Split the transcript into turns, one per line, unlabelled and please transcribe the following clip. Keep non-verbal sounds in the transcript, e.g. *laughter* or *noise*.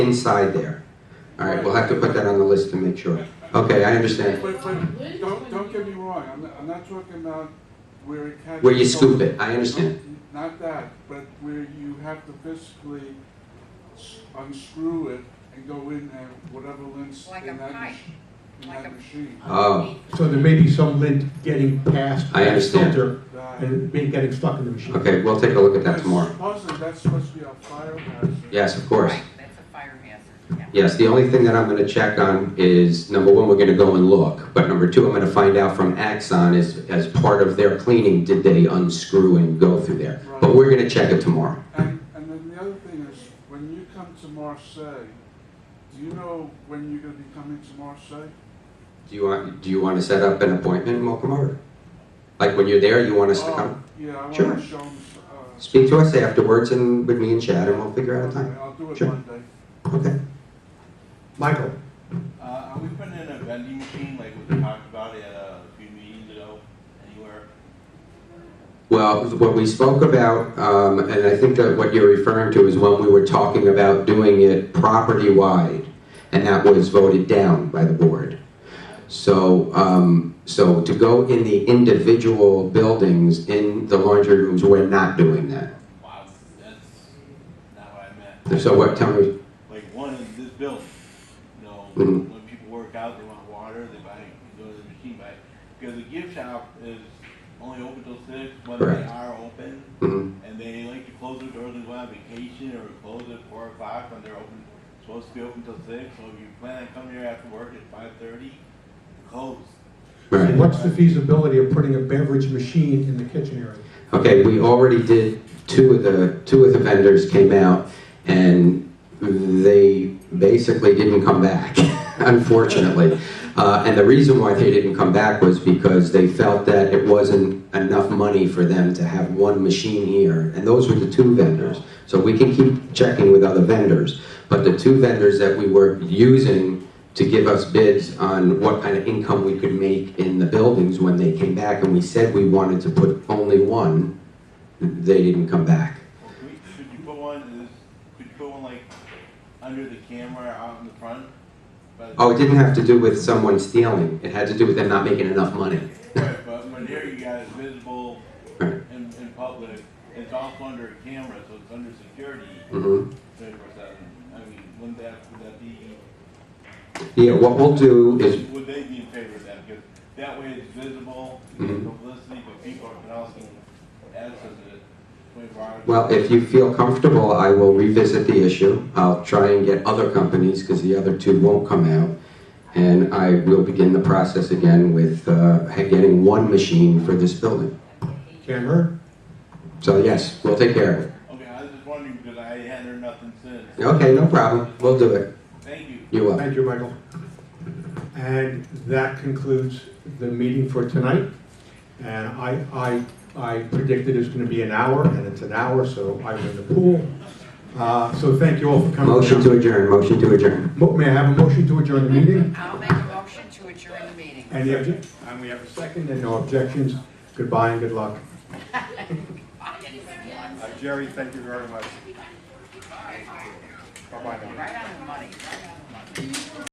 inside there. All right, we'll have to put that on the list to make sure. Okay, I understand.
But, but, don't, don't get me wrong, I'm, not- I'm not talking about where it catches.
Where you scoop it, I understand.
Not that, but where you have to physically s- unscrew it and go in there, whatever lint's
Like
in
a
that,
pipe,
mach- in
like a-
that machine.
Oh,
So there may be some lint getting past
I
that
understand.
filter
That-
and being getting stuck in the machine.
okay, we'll take a look at that
But
tomorrow.
Supposedly, that's supposed to be a fire hazard.
Yes, of course.
Right, that's a fire hazard, yeah.
Yes, the only thing that I'm gonna check on is, number one, we're gonna go and look, but number two, I'm gonna find out from Axon as, as part of their cleaning, did they unscrew and go through there? But we're gonna check it tomorrow.
And, and then the other thing is, when you come to Marseille, do you know when you're gonna be coming to Marseille?
Do you want, do you wanna set up an appointment and welcome over? Like when you're there, you want us to
Oh,
come?
Yeah, I
Sure.
wanna show them, uh.
Speak to us afterwards and with me and Chad and we'll figure out a time.
I'll do it
Sure.
Monday.
Okay.
Michael,
Uh, are we putting in a vending machine like we talked about at a few meetings ago, anywhere?
Well, what we spoke about, um, and I think that what you're referring to is when we were talking about doing it property-wide, and that was voted down by the board. So, um, so to go in the individual buildings, in the laundry rooms, we're not doing that.
Wow, that's not what I meant.
So what, tell me,
Like one in this building, you know,
Mhm.
when people work out, they want water, they buy, they go to the machine, buy. Because the gift shop is only open till six, but they
Correct.
are open,
mhm,
and they like to close their doors when they go on vacation or close at four o'clock when they're open, supposed to be open till six, so if you plan on coming here after work at five thirty, close.
right.
what's the feasibility of putting a beverage machine in the kitchen area?
Okay, we already did, two of the, two of the vendors came out, and they basically didn't come back, *laughs* unfortunately. Uh, and the reason why they didn't come back was because they felt that it wasn't enough money for them to have one machine here, and those were the two vendors. So we can keep checking with other vendors, but the two vendors that we were using to give us bids on what kind of income we could make in the buildings when they came back, and we said we wanted to put only one, they didn't come back.
Well, Could we- could you put one, is, could you put one like under the camera out in the front? By the-
Oh, it didn't have to do with someone stealing, it had to do with them not making enough money.
Right, but when here you got it visible
Right.
in, in public, it's also under a camera, so it's under security
hmm
twenty-four seven. I mean, wouldn't that, would that be,
Yeah, what we'll do is,
would they be in favor of that? Because that way it's visible, you get
Mhm.
publicity, but people are also access to it twenty-four hours.
well, if you feel comfortable, I will revisit the issue. I'll try and get other companies, because the other two won't come out. And I will begin the process again with, uh, getting one machine for this building.
Camera?
So yes, we'll take care of it.
Okay, I was just wondering, because I hadn't heard nothing since.
Okay, no problem, we'll do it.
Thank you.
You're welcome.
Thank you, Michael. And that concludes the meeting for tonight. And I, I, I predicted it's gonna be an hour, and it's an hour, so I'm in the pool. Uh, so thank you all for coming.
Motion to adjourn, motion to adjourn.
Mo- May I have a motion to adjourn the meeting?
I'll make a motion to adjourn the meeting.
Any obje- And we have a second, and no objections. Goodbye and good luck. Uh, Jerry, thank you very much. Bye-bye now.
Right on the money, right on the money.